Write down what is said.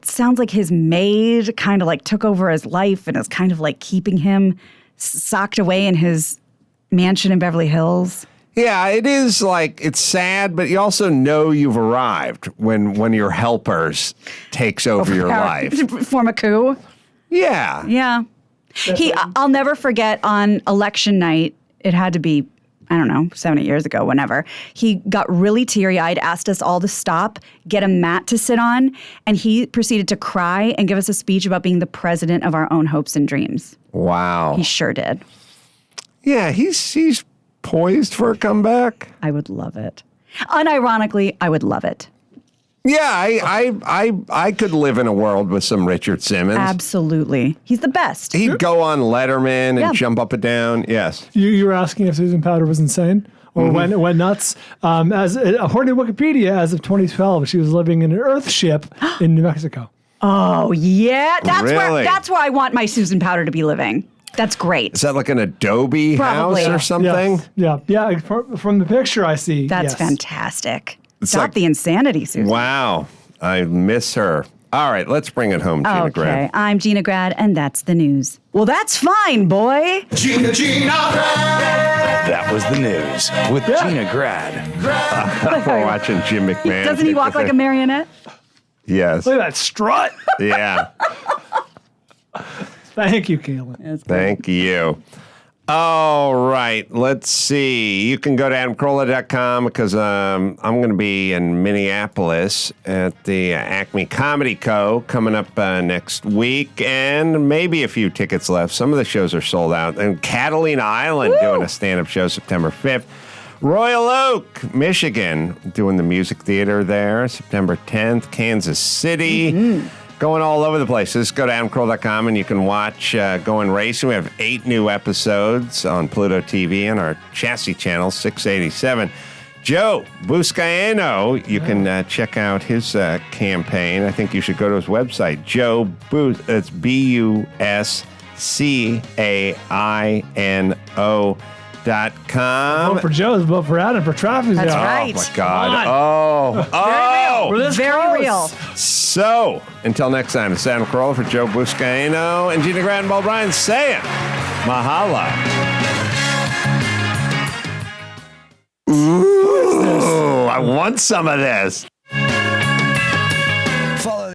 sounds like his maid kind of like took over his life and is kind of like keeping him s- socked away in his mansion in Beverly Hills. Yeah, it is like it's sad, but you also know you've arrived when one of your helpers takes over your Or- life. Form a coup. Yeah. Yeah. He, I- I'll never forget on election night, it had to be, I don't know, seven, eight years ago, whenever. He got really teary eyed, asked us all to stop, get a mat to sit on, and he proceeded to cry and give us a speech about being the president of our own hopes and dreams. Wow. He sure did. Yeah, he's he's poised for a comeback. I would love it. Unironically, I would love it. Yeah, I I I, I could live in a world with some Richard Simmons. Absolutely. He's the best. He'd go on Letterman and Yeah. jump up and down. Yes. You, you were asking if Susan Powder was insane or when it went nuts. Um, as according to Wikipedia, as of 2012, she was living in an Earth ship in New Mexico. Oh, yeah. That's where Really? that's where I want my Susan Powder to be living. That's great. Is that like an Adobe Probably. house or something? Yes. Yeah, yeah. like, fr- From the picture I see, That's yes. fantastic. Stop like- the insanity, Susan. Wow. I miss her. All right, let's bring it home, Gina okay, Grant. I'm Gina Grad, and that's the news. Well, that's fine, boy. Gina, Gina. That was the news with Yeah. Gina Grad. We're watching Jim McMahon. Doesn't he walk like a marionette? Yes. Look at that strut. Yeah. Thank you, Kaylin. Thank you. All right, let's see. You can go to adamcarolla.com because um, I'm going to be in Minneapolis at the uh, Acme Comedy Co. coming up uh, next week, and maybe a few tickets left. Some of the shows are sold out. And Catalina Island doing a stand up show September 5th. Royal Oak, Michigan, doing the music theater there September 10th. Kansas City going all over the place. Just go to adamcroll.com and you can watch uh, Going Racing. We have eight new episodes on Pluto TV and our chassis channel, 687. Joe Buscaino, you can uh, check out his uh, campaign. I think you should go to his website, Joe Bus. It's B U S C A I N O dot com. Vote Oh, for Joe's, vote for Adam, for traffic. That's Zone. right. Oh my God! Oh, oh! We're this Very close. real. So, until next time, it's Adam Carolla for Joe Buscaino and Gina Grand Ball Bryan saying, Mahala. Ooh, I want some of this.